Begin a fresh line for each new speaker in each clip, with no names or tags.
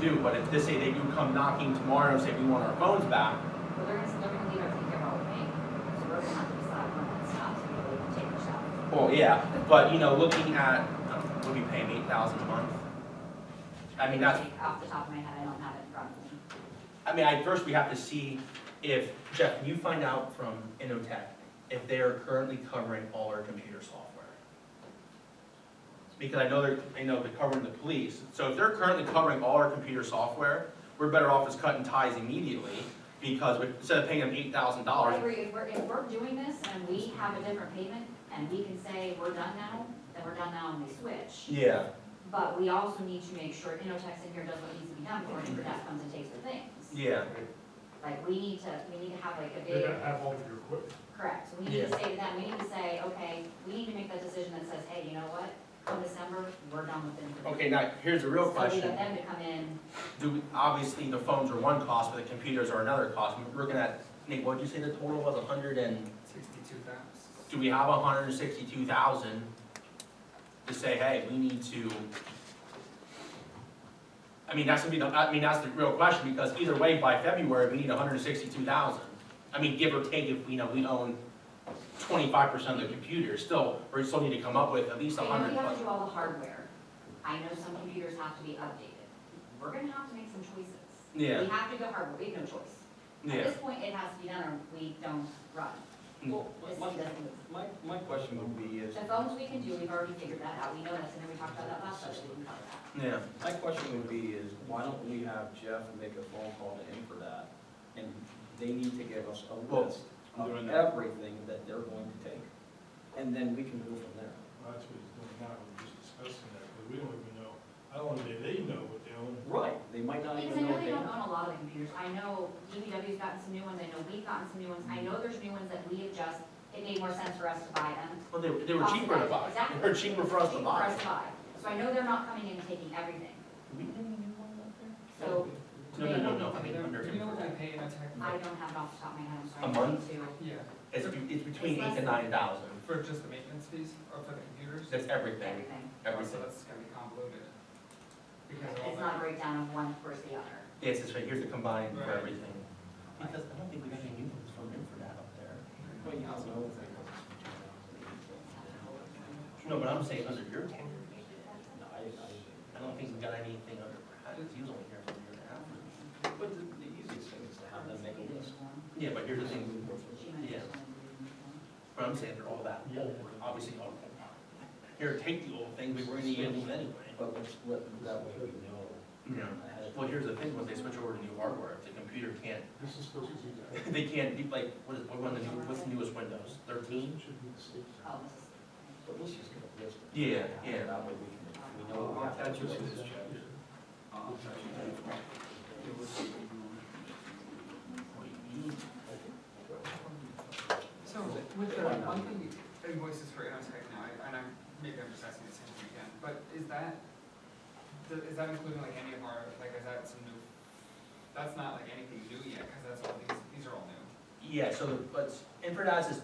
do, but if they say they do come knocking tomorrow and say we want our phones back,
Well, they're gonna, they're gonna leave everything here all day, so we're gonna have to decide when that stops, and we'll take the shot.
well, yeah, but you know, looking at, um, would be paying eight thousand a month? I mean, that's,
Off the top of my head, I don't have it in front of me.
I mean, I, first we have to see if, Jeff, can you find out from Innotek if they are currently covering all our computer software? Because I know they're, I know they're covering the police, so if they're currently covering all our computer software, we're better off just cutting ties immediately, because we- instead of paying them eight thousand
I
dollars,
agree, if we're, if we're doing this and we have a different payment, and we can say, we're done now, then we're done now and we switch.
yeah.
But we also need to make sure Innotex in here does what needs to be done before Innotex comes and takes their things.
Yeah,
Like, we need to, we need to have like a
They're
big,
gonna have all of your equipment.
correct, so we need to
Yeah.
say to them, we need to say, okay, we need to make that decision that says, hey, you know what? Come December, we're done with Innotex.
okay, now, here's a real
So we
question.
get them to come in,
Do, we- obviously, the phones are one cost, but the computers are another cost. We're looking at, Nate, what'd you say the total was, a hundred and,
Sixty-two thousand.
do we have a hundred and sixty-two thousand? To say, hey, we need to. I mean, that's gonna be the, I mean, that's the real question, because either way, by February, we need hundred and sixty-two thousand. I mean, give or take, if, you know, we own twenty-five percent of the computers, still, we still need to come up with at least a
I know
hundred
you have
plus.
to do all the hardware, I know some computers have to be updated, we're gonna have to make some choices.
Yeah.
We have to go hardware, we have no choice. At
Yeah,
this point, it has to be done or we don't run.
Well,
This thing
my,
doesn't move.
my, my question would be is,
The phones we can do, we've already figured that out, we know this, and then we talked about that last session, we can cover that.
yeah,
my question would be is, why don't we have Jeff make a phone call to him for that? And they need to give us a
Well,
list
I'm
of
doing that.
everything that they're going to take. And then we can move from there.
Well, that's what he's doing now, we're just discussing that, because we don't even know, I don't think they know what they own.
Right, they might not
Because I
even know
know
what
they
they
don't
have.
own a lot of the computers, I know DPW's gotten some new ones, I know we've gotten some new ones, I know there's new ones that we have just, it made more sense for us to buy them.
well, they, they were cheaper to buy,
Exactly.
they were cheaper for us to
Cheaper
buy.
So I know they're not coming in and taking everything,
Do we have any new ones up there?
so
Mm-hmm. No, no, no, no, under
Do you know what
him.
they pay in a tech?
I don't have it off the top of my head, I'm
A
sorry. I
month?
need to-
Yeah,
It's, be- it's between
It's
eight and
less than-
nine thousand.
for just the maintenance fees or for the computers? Oh,
That's everything,
Everything.
everything.
So that's gonna be convoluted. Because of
It's
all that.
not a breakdown of one versus the other.
Yes, it's right, here's the combined for
Right.
everything. Because I don't think we got any new ones from him for that up there.
Well, yeah, I don't know.
No, but I'm saying under your tenure.
No, I,
I don't think we got anything under Brad's, he was only here for a year and a half.
I, but the, the easiest thing is to have them make a list.
Yeah, but here's the thing,
She might
Yeah.
just wanna do
but I'm saying they're all that old, obviously all. Here, take the old thing, we were gonna use them anyway.
But let's let, that way we know.
Yeah.
ahead of time.
Well, here's the thing, once they switch over to new hardware, if the computer can't,
This is supposed to be that.
they can't, be like, what is, what the new, what's the newest Windows, thirteen?
Should be the state.
it. Oh, this is-
But let's just get a list. of-
Yeah, yeah.
That way we can, we know what we have to do.
So with the monthly invoices for Innotek now, I- and I'm, maybe I'm just asking this question again, but is that, the- is that including like any of our, like is that some new? That's not like anything new yet, cause that's all, these, these are all new.
Yeah, so, the- but Infradad is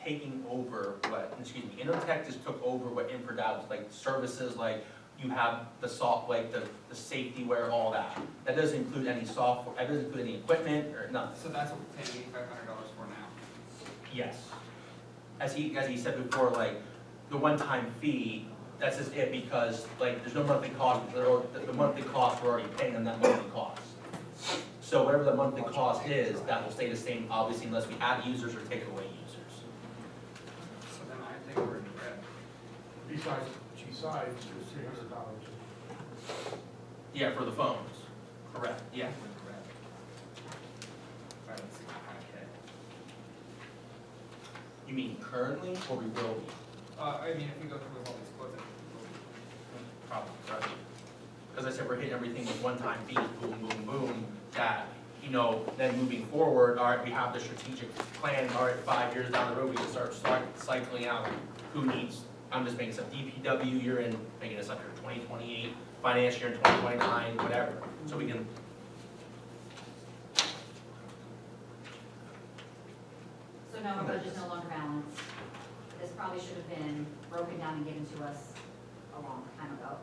taking over what, excuse me, Innotech just took over what Infradad was, like, services, like, you have the soft, like, the, the safety wear, all that. That doesn't include any software, that doesn't include any equipment or nothing,
So that's what we're paying eighty-five hundred dollars for now.
yes. As he, as he said before, like, the one-time fee, that's just it, because, like, there's no monthly cost, the, the monthly cost, we're already paying them that monthly cost. So whatever the monthly cost is, that will stay the same, obviously, unless we add users or take away users.
So then I think we're in the red.
Besides, besides the three hundred dollars.
Yeah, for the phones. Correct. Yeah.
We're in the red. Five hundred sixty-five K.
You mean currently or we will be?
Uh, I mean, if we go through all these quotes, I think we'll be.
Probably, sorry. Because I said we're hitting everything with one-time fees, boom, boom, boom, that, you know, then moving forward, all right, we have the strategic plan, all right, five years down the road, we can start, start cycling out who needs, I'm just making some DPW, you're in, making this up here, twenty twenty-eight, finance year in twenty twenty-nine, whatever, so we can.
So now our budget's no longer balanced. This probably should have been broken down and given to us a long time ago.